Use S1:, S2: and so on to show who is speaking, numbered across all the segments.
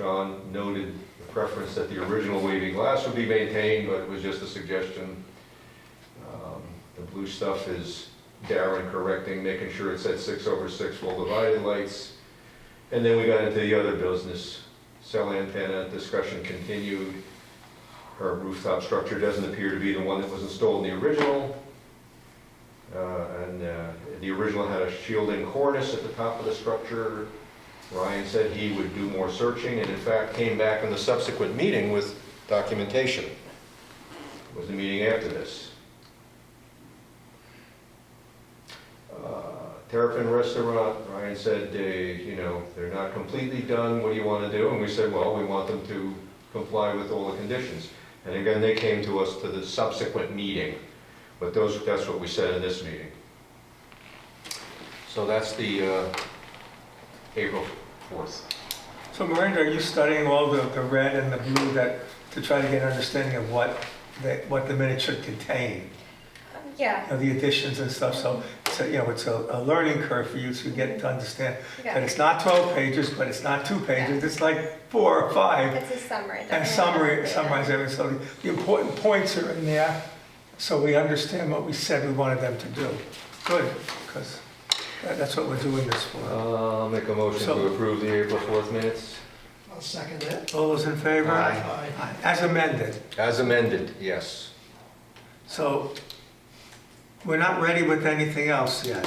S1: John noted the preference that the original waving glass would be maintained, but it was just a suggestion. Um, The blue stuff is Darren correcting, making sure it said six over six full divided lights. And then we got into the other business, cell antenna discussion continued. Her rooftop structure doesn't appear to be the one that was installed in the original. Uh, And uh, the original had a shielding cornice at the top of the structure. Ryan said he would do more searching, and in fact, came back in the subsequent meeting with documentation. It Was the meeting after this. Uh, Terrapin Restaurant, Ryan said, they, you know, they're not completely done, what do you want to do? And we said, well, we want them to comply with all the conditions. And again, they came to us to the subsequent meeting, but those, that's what we said in this meeting. So that's the uh, April 4th.
S2: So Miranda, are you studying all the, the red and the blue that, to try to get an understanding of what, that, what the minutes should contain?
S3: Yeah,
S2: Of the additions and stuff, so, so, you know, it's a, a learning curve for you to get to understand that
S3: yeah.
S2: it's not twelve pages, but it's not two pages, it's like four or five.
S3: It's a summary.
S2: And
S3: definitely
S2: summary,
S3: not
S2: summarize everything, so the- the important points are in there, so we understand what we said we wanted them to do. Good, because that's what we're doing this for.
S1: I'll make a motion to
S2: So-
S1: approve the April 4th minutes.
S4: I'll second it.
S2: All those in favor?
S1: Aye.
S5: Uh,
S2: Aye. As amended.
S1: As amended, yes.
S2: So we're not ready with anything else yet.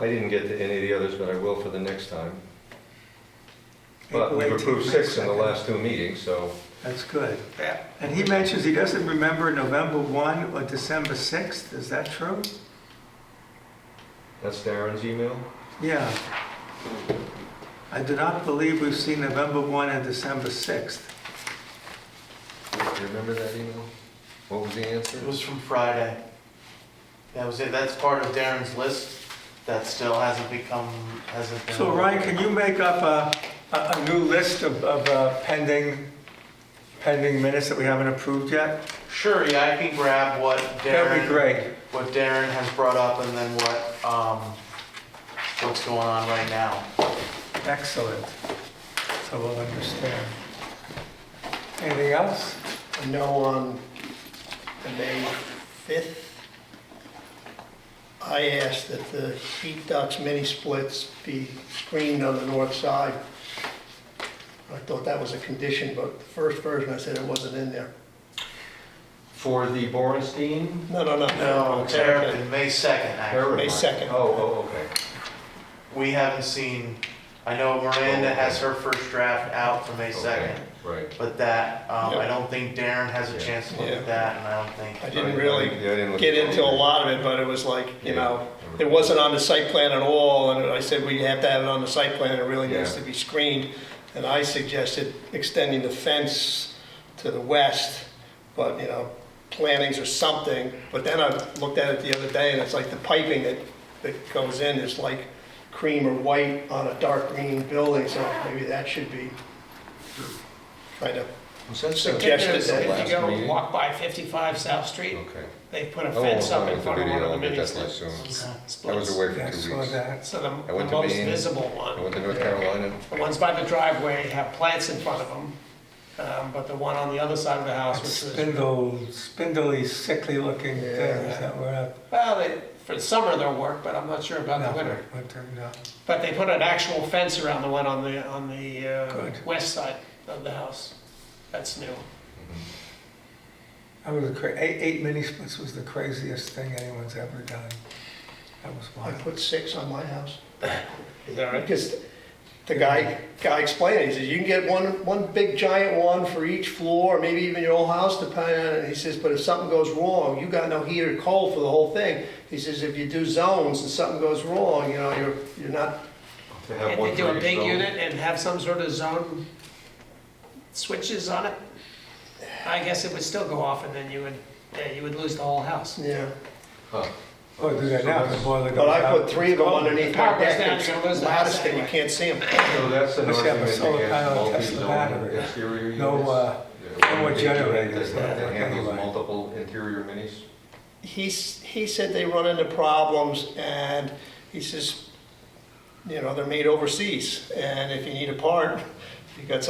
S1: I didn't get to any of the others, but I will for the next time. But
S2: April
S1: we've
S2: 18th,
S1: approved
S2: May
S1: six in the
S2: 2nd.
S1: last two meetings, so
S2: That's good. And he mentions he doesn't remember November 1 or December 6th, is that true?
S1: that's Darren's email.
S2: Yeah. I do not believe we've seen November 1 and December 6th.
S1: Do you remember that email? What was the answer?
S4: It was from Friday. That was it, that's part of Darren's list that still hasn't become, hasn't been.
S2: So Ryan, can you make up a, a a new list of, of uh, pending, pending minutes that we haven't approved yet?
S4: Sure, yeah, I can grab what
S2: That'd be
S4: Darren,
S2: great.
S4: what Darren has brought up and then what, um, what's going on right now.
S2: Excellent. So we'll understand. Anything else?
S5: No on the May 5th. I asked that the heat ducts, mini splits be screened on the north side. I thought that was a condition, but the first version, I said it wasn't in there.
S1: For the Borenstein?
S5: No, no, no.
S4: No, Darren, May 2nd, actually.
S1: Terrible.
S5: May 2nd.
S1: Oh, oh, okay.
S4: We haven't seen, I know Miranda has her first draft out for May 2nd,
S1: Okay, Right.
S4: but that, um, I
S5: Yeah.
S4: don't think Darren has a chance to look
S5: Yeah.
S4: at that and I don't think.
S5: I didn't
S1: Right,
S5: really
S1: yeah, I didn't look
S5: get
S1: at it
S5: into a
S1: either.
S5: lot of it, but it was like, you
S1: Yeah.
S5: know, it wasn't on the site plan at all, and I said, we have to have it on the site plan, it really needs
S1: Yeah.
S5: to be screened. And I suggested extending the fence to the west, but, you know, plantings or something. But then I looked at it the other day, and it's like the piping that, that goes in is like cream or white on a dark green building, so maybe that should be kind of
S1: Was that the-
S5: suggested.
S1: the
S5: that-
S6: If
S1: last
S6: you go
S1: meeting?
S6: walk by 55 South Street,
S1: Okay.
S6: they put a
S1: I won't
S6: fence up
S1: find
S6: in
S1: the
S6: front of
S1: video,
S6: one of the
S1: I'll get
S6: mini
S1: that soon.
S6: splits.
S1: I was away
S2: Yeah,
S1: for
S2: I
S1: two
S2: saw
S1: weeks.
S2: that.
S6: So the
S1: I went
S6: the
S1: to
S6: most
S1: Maine.
S6: visible
S1: I
S6: one.
S1: went to North Carolina.
S6: The ones by the driveway have plants in front of them, um, but the one on the other side of the house, which was,
S2: Spindle, spindly, sickly-looking things
S5: Yeah.
S2: that were up.
S6: well, they- for the summer they'll work, but I'm not sure about the winter.
S2: no.
S6: But they put an actual fence around the one on the, on the uh,
S2: Good.
S6: west side of the house. That's new.
S2: That was a cra, eight, eight mini splits was the craziest thing anyone's ever done. That was
S5: I
S2: wild.
S5: put six on my house.
S6: Is that right?
S5: Because the guy, guy explained, it. he says, you can get one, one big giant one for each floor, maybe even your whole house depending on it. He says, but if something goes wrong, you got no heat or cold for the whole thing. He says, if you do zones and something goes wrong, you know, you're, you're not,
S1: To have
S6: Can't
S1: one
S6: they do
S1: for
S6: a
S1: each
S6: big
S1: zone.
S6: unit and have some sort of zone switches on it? I guess it would still go off and then you would, yeah, you would lose the whole house.
S5: yeah.
S1: Huh.
S2: Oh, do that
S1: So
S2: now, the
S1: that's-
S2: boiler goes
S5: But I
S2: out.
S5: put three of them underneath
S6: Power
S5: my
S6: goes
S5: deck,
S6: down, you're gonna lose
S5: it's
S6: the house
S5: loudest that you
S6: anyway.
S5: can't see them.
S1: So that's an
S2: Must have a
S1: argument
S2: solar
S1: against
S2: panel, Tesla
S1: multi-zone
S2: battery.
S1: exterior units.
S2: No, uh,
S1: Yeah,
S2: no more
S1: big
S2: generators,
S1: unit That that
S2: yeah,
S1: handles
S2: anyway.
S1: multiple interior minis.
S5: he's, he said they run into problems and he says, you know, they're made overseas and if you need a part, you got